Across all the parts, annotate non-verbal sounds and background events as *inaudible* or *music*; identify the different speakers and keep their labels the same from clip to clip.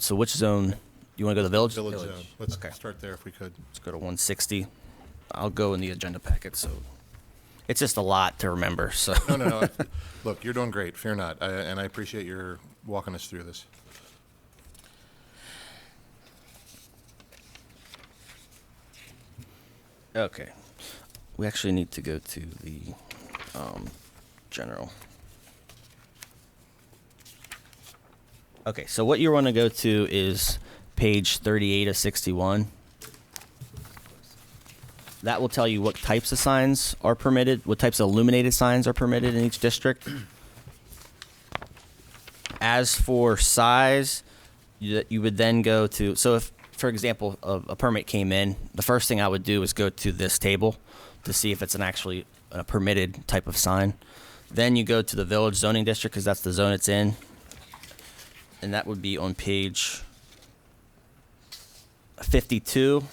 Speaker 1: So which zone? You want to go to the village?
Speaker 2: Village zone. Let's
Speaker 1: Okay.
Speaker 2: start there if we could.
Speaker 1: Let's go to 160. I'll go in the agenda packet. So it's just a lot to remember.
Speaker 2: *laughs*
Speaker 1: So
Speaker 2: No, no, no. Look, you're doing great. Fear not. I- And I appreciate your walking us through this.
Speaker 1: okay, we actually need to go to the um, general. Okay, so what you want to go to is page 38 of 61. That will tell you what types of signs are permitted, what types of illuminated signs are permitted in each district. As for size, you, you would then go to, so if, for example, a, a permit came in, the first thing I would do is go to this table to see if it's an actually a permitted type of sign. Then you go to the village zoning district because that's the zone it's in. And that would be on page 52,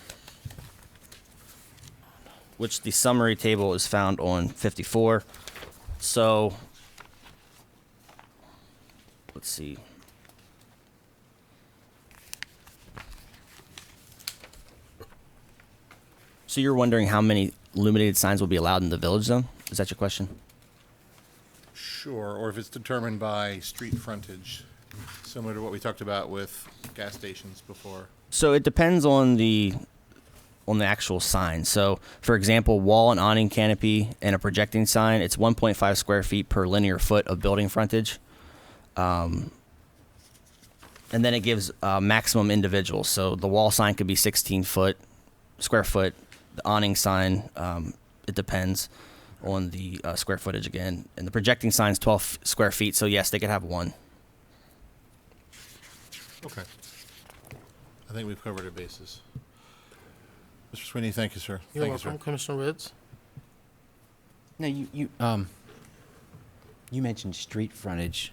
Speaker 1: which the summary table is found on 54. So let's see. So you're wondering how many illuminated signs will be allowed in the village zone? Is that your question?
Speaker 2: Sure, or if it's determined by street frontage, similar to what we talked about with gas stations before.
Speaker 1: So it depends on the on the actual sign. So for example, wall and awning canopy and a projecting sign, it's 1.5 square feet per linear foot of building frontage. Um, and then it gives uh, maximum individuals. So the wall sign could be 16 foot square foot. The awning sign, um, it depends on the uh, square footage again. And the projecting sign's 12 square feet. So yes, they could have one.
Speaker 2: Okay. I think we've covered our bases. Mr. Sweeney, thank you, sir.
Speaker 3: You're
Speaker 2: Thank you, sir.
Speaker 3: welcome, Commissioner Ritz.
Speaker 4: No, you, you, um, you mentioned street frontage.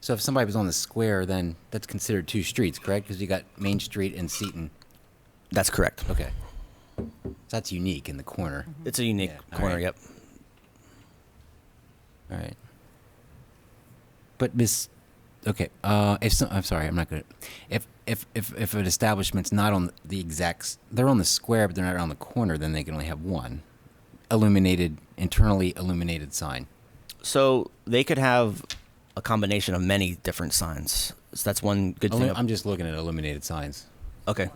Speaker 4: So if somebody was on the square, then that's considered two streets, correct? Because you got Main Street and Seton.
Speaker 1: That's correct.
Speaker 4: Okay. So That's unique in the corner.
Speaker 1: It's a unique
Speaker 4: Yeah, all
Speaker 1: corner.
Speaker 4: right.
Speaker 1: Yep.
Speaker 4: All right. But Miss, okay, uh, if some, I'm sorry, I'm not good. At, if if if if an establishment's not on the exact, s- they're on the square, but they're not on the corner, then they can only have one illuminated, internally illuminated sign.
Speaker 1: So they could have a combination of many different signs. So that's one good
Speaker 4: Illu-
Speaker 1: thing.
Speaker 4: I'm just looking at illuminated signs.
Speaker 1: okay.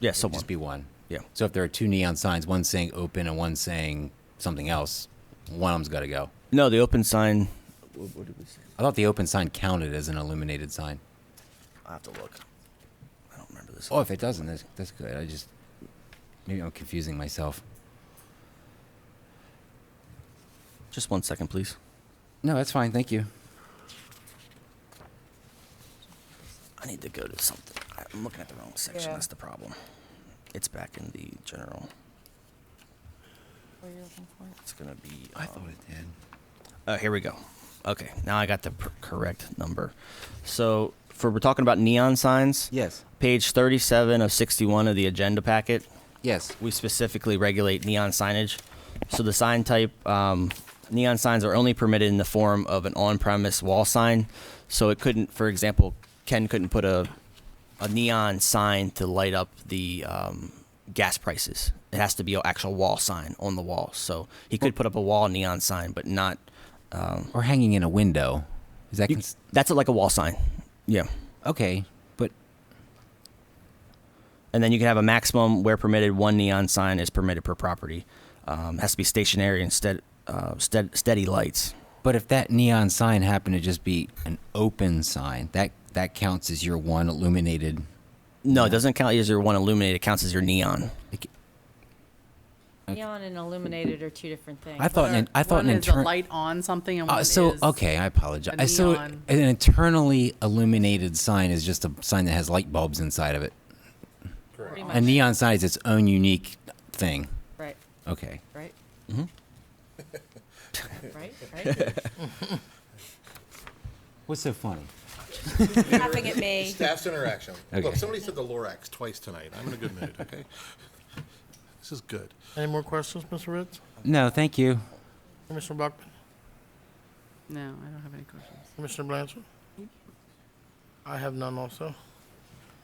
Speaker 1: Yeah,
Speaker 4: It'd
Speaker 1: someone.
Speaker 4: just be one.
Speaker 1: Yeah.
Speaker 4: So if there are two neon signs, one saying open and one saying something else, one of them's got to go.
Speaker 1: No, the open sign.
Speaker 4: I thought the open sign counted as an illuminated sign.
Speaker 1: I have to look. I don't remember this.
Speaker 4: Oh, if it doesn't, that's, that's good. I just maybe I'm confusing myself.
Speaker 1: Just one second, please.
Speaker 4: No, that's fine. Thank you.
Speaker 1: I need to go to something. I'm looking at the wrong section.
Speaker 5: Yeah.
Speaker 1: That's the problem. It's back in the general.
Speaker 5: What are you looking for?
Speaker 1: It's gonna be. um,
Speaker 4: it did.
Speaker 1: Oh, here we go. Okay, now I got the pr- correct number. So for we're talking about neon signs.
Speaker 4: Yes.
Speaker 1: Page 37 of 61 of the agenda packet.
Speaker 4: Yes.
Speaker 1: we specifically regulate neon signage. So the sign type, um, neon signs are only permitted in the form of an on-premise wall sign. So it couldn't, for example, Ken couldn't put a, a neon sign to light up the um, gas prices. It has to be an actual wall sign on the wall. So he could put up a wall neon sign, but not.
Speaker 4: Or hanging in a window. Is that cons-
Speaker 1: That's like a wall sign. Yeah.
Speaker 4: okay? But
Speaker 1: And then you can have a maximum where permitted one neon sign is permitted per property. Um, has to be stationary instead uh, stead, steady lights.
Speaker 4: but if that neon sign happened to just be an open sign, that that counts as your one illuminated.
Speaker 1: No, it doesn't count as your one illuminated. It counts as your neon.
Speaker 4: like,
Speaker 5: Neon and illuminated are two different things.
Speaker 4: I thought an, I thought an
Speaker 6: one is a
Speaker 4: internal.
Speaker 6: light on something and
Speaker 4: Uh,
Speaker 6: one
Speaker 4: so
Speaker 6: is
Speaker 4: okay, I apologize.
Speaker 6: a
Speaker 4: so
Speaker 6: neon.
Speaker 4: an internally illuminated sign is just a sign that has light bulbs inside of it.
Speaker 5: Pretty
Speaker 4: A
Speaker 5: much,
Speaker 4: neon sign is its own unique thing.
Speaker 5: right,
Speaker 4: Okay.
Speaker 5: right?
Speaker 4: Mm-hmm.
Speaker 5: Right,
Speaker 4: *laughs*
Speaker 5: right?
Speaker 4: What's so funny?
Speaker 5: Laughing at me.
Speaker 2: Staff's interaction. Look,
Speaker 4: Okay.
Speaker 2: somebody said the Lorax twice tonight. I'm in a good mood, *laughs* okay? This is good.
Speaker 3: Any more questions, Mr. Ritz?
Speaker 4: No, thank you.
Speaker 3: Commissioner Buckman?
Speaker 6: No, I don't have any questions.
Speaker 3: Commissioner Blanchard? I have none also.